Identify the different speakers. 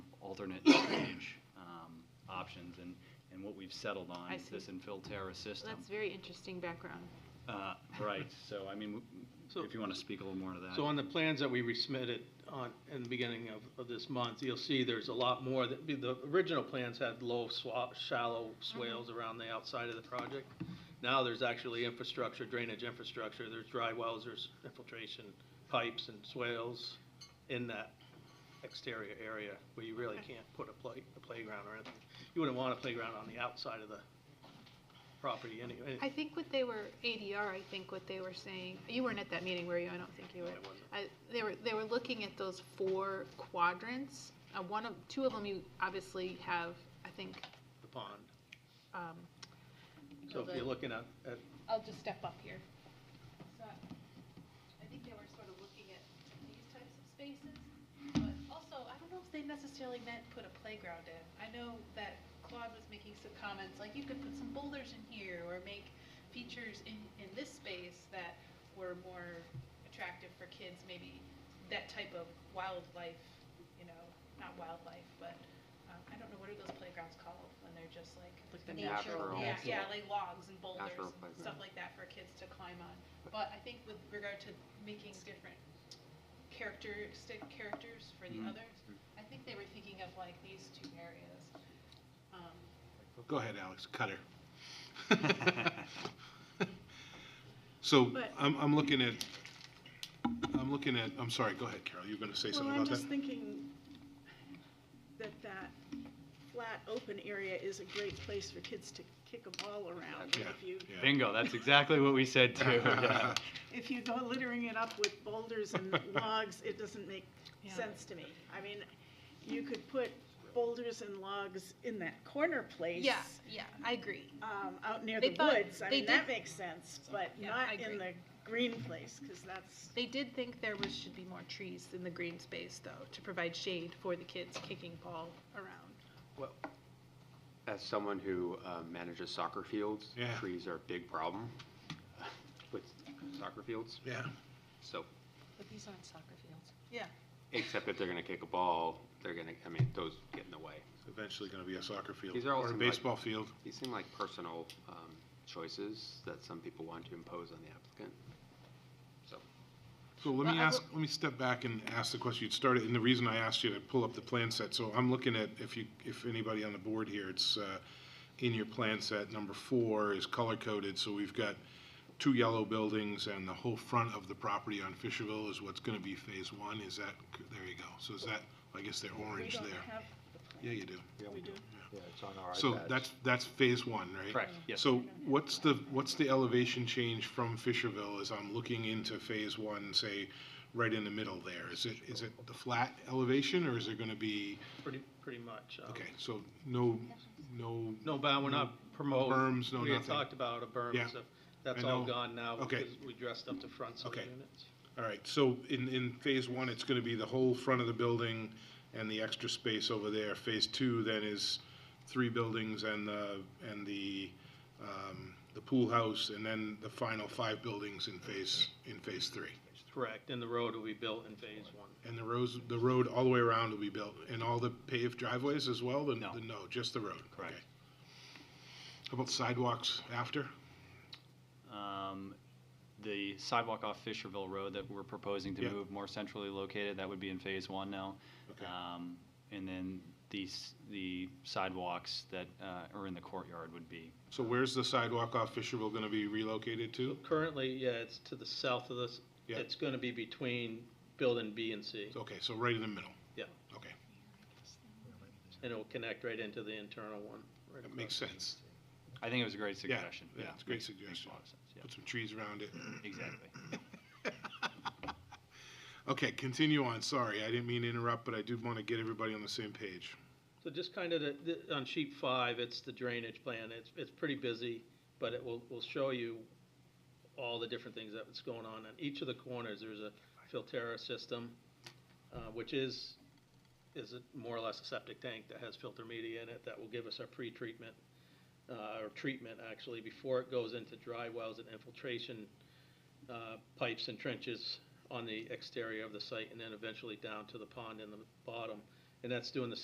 Speaker 1: alternate drainage um, options, and, and what we've settled on
Speaker 2: I
Speaker 1: is this
Speaker 2: see.
Speaker 1: infill terrace system.
Speaker 2: That's very interesting background.
Speaker 1: Uh, Right, so I mean, w-
Speaker 3: So-
Speaker 1: if you want to speak a little more to that.
Speaker 3: So on the plans that we resubmitted on, in the beginning of, of this month, you'll see there's a lot more, that- the, the original plans had low swap, shallow swales
Speaker 2: Mm-hmm.
Speaker 3: around the outside of the project. Now there's actually infrastructure, drainage infrastructure, there's dry wells, there's infiltration pipes and swales in that exterior area where you really
Speaker 2: Okay.
Speaker 3: can't put a play, a playground or anything. You wouldn't want a playground on the outside of the property anyway.
Speaker 2: I think what they were, ADR, I think what they were saying, you weren't at that meeting, were you? I don't think you were.
Speaker 3: I wasn't.
Speaker 2: I- They were, they were looking at those four quadrants. Uh, One of, two of them you obviously have, I think,
Speaker 3: The pond.
Speaker 2: um,
Speaker 3: So if you're looking at, at
Speaker 2: I'll just step up here. So I think they were sort of looking at these types of spaces, but also, I don't know if they necessarily meant put a playground in. I know that Claude was making some comments, like you could put some boulders in here or make features in, in this space that were more attractive for kids, maybe that type of wildlife, you know, not wildlife, but, um, I don't know, what are those playgrounds called when they're just like.
Speaker 4: Like the
Speaker 2: nature-
Speaker 4: natural-
Speaker 2: Yeah, yeah, like logs and boulders
Speaker 4: Natural
Speaker 2: and
Speaker 4: playground.
Speaker 2: stuff like that for kids to climb on. But I think with regard to making different characteristic characters for the
Speaker 1: Mhm.
Speaker 4: Mm-hmm.
Speaker 2: others, I think they were thinking of like these two areas. Um,
Speaker 5: Oh, Go ahead, Alex, Cutter. So
Speaker 2: But-
Speaker 5: I'm, I'm looking at, I'm looking at, I'm sorry, go ahead, Carol, you were going to say something about
Speaker 6: Well, I'm
Speaker 5: that?
Speaker 6: just thinking that that flat, open area is a great place for kids to kick a ball around.
Speaker 5: Yeah,
Speaker 6: If you,
Speaker 5: yeah.
Speaker 1: Bingo, that's exactly what we said too, yeah.
Speaker 6: if you go littering it up with boulders and logs, it doesn't make
Speaker 2: Yeah.
Speaker 6: sense to me. I mean, you could put boulders and logs in that corner place.
Speaker 2: Yeah, yeah, I agree.
Speaker 6: Um, out near
Speaker 2: They
Speaker 6: the
Speaker 2: thought-
Speaker 6: woods. I
Speaker 2: they
Speaker 6: mean, that
Speaker 2: did-
Speaker 6: makes sense, but
Speaker 2: Yeah, I
Speaker 6: not
Speaker 2: agree.
Speaker 6: in the green place, because that's,
Speaker 2: They did think there was, should be more trees in the green space though, to provide shade for the kids kicking ball around.
Speaker 4: As someone who uh, manages soccer fields,
Speaker 5: Yeah.
Speaker 4: trees are a big problem with soccer fields.
Speaker 5: Yeah,
Speaker 4: So,
Speaker 7: But these aren't soccer fields.
Speaker 4: except if they're going to kick a ball, they're going to, I mean, those get in the way.
Speaker 5: it's eventually going to be a soccer field.
Speaker 4: These are all
Speaker 5: Or a
Speaker 4: some, like-
Speaker 5: baseball field.
Speaker 4: These seem like personal um, choices that some people want to impose on the applicant. So,
Speaker 5: So let
Speaker 2: Well,
Speaker 5: me
Speaker 2: I
Speaker 5: ask, let me step back and ask the question. You started, and the reason I asked you to pull up the plan set, so I'm looking at, if you, if anybody on the board here, it's, uh, in your plan set, number four is color-coded, so we've got two yellow buildings, and the whole front of the property on Fisherville is what's gonna be phase one, is that, there you go. So is that, I guess they're
Speaker 6: we
Speaker 5: orange
Speaker 6: don't
Speaker 5: there.
Speaker 6: have
Speaker 5: Yeah, you do.
Speaker 6: we do.
Speaker 5: So that's, that's phase one, right?
Speaker 1: Correct, yes.
Speaker 5: So what's the, what's the elevation change from Fisherville as I'm looking into phase one, say, right in the middle there? Is it, is it the flat elevation or is it gonna be,
Speaker 3: pretty, pretty much. um,
Speaker 5: okay, so no, no,
Speaker 3: No, but we're not promoting.
Speaker 5: berms, no
Speaker 3: We had
Speaker 5: nothing.
Speaker 3: talked about a berm
Speaker 5: Yeah,
Speaker 3: and stuff. That's
Speaker 5: I
Speaker 3: all
Speaker 5: know.
Speaker 3: gone now
Speaker 5: Okay.
Speaker 3: because we dressed up the fronts of the
Speaker 5: Okay.
Speaker 3: units.
Speaker 5: all right. So in, in phase one, it's gonna be the whole front of the building and the extra space over there. Phase two then is three buildings and the, and the, um, the pool house and then the final five buildings in phase, in phase three.
Speaker 3: Correct, and the road will be built in phase one.
Speaker 5: And the roads, the road all the way around will be built, and all the paved driveways as well? The-
Speaker 1: No.
Speaker 5: the- No, just the road?
Speaker 1: Correct.
Speaker 5: Okay. How about sidewalks after?
Speaker 1: Um, The sidewalk off Fisherville Road that we're proposing to
Speaker 5: Yeah.
Speaker 1: move more centrally located, that would be in phase one now.
Speaker 5: Okay.
Speaker 1: Um, And then these, the sidewalks that uh, are in the courtyard would be
Speaker 5: So where's the sidewalk off Fisherville gonna be relocated to?
Speaker 3: Currently, yeah, it's to the south of this.
Speaker 5: Yeah.
Speaker 3: It's going to be between building B and C,
Speaker 5: Okay, so right in the middle?
Speaker 3: Yeah.
Speaker 5: Okay,
Speaker 3: and it will connect right into the internal one. right
Speaker 5: that makes
Speaker 3: across.
Speaker 5: sense.
Speaker 1: I think it was a great suggestion.
Speaker 5: yeah, it's a great
Speaker 1: makes- makes
Speaker 5: suggestion.
Speaker 1: a lot of sense, yeah.
Speaker 5: Put some trees around it.
Speaker 1: Exactly.
Speaker 5: Okay, continue on, sorry, I didn't mean to interrupt, but I do wanna get everybody on the same page.
Speaker 3: So just kind of the, the- on sheet five, it's the drainage plan. It's, it's pretty busy, but it will, will show you all the different things that's going on. On each of the corners, there's a filtera system, uh, which is, is a- more or less a septic tank that has filter media in it that will give us our pre-treatment, uh, or treatment actually, before it goes into dry wells and infiltration uh, pipes and trenches on the exterior of the site, and then eventually down to the pond in the bottom. And that's doing the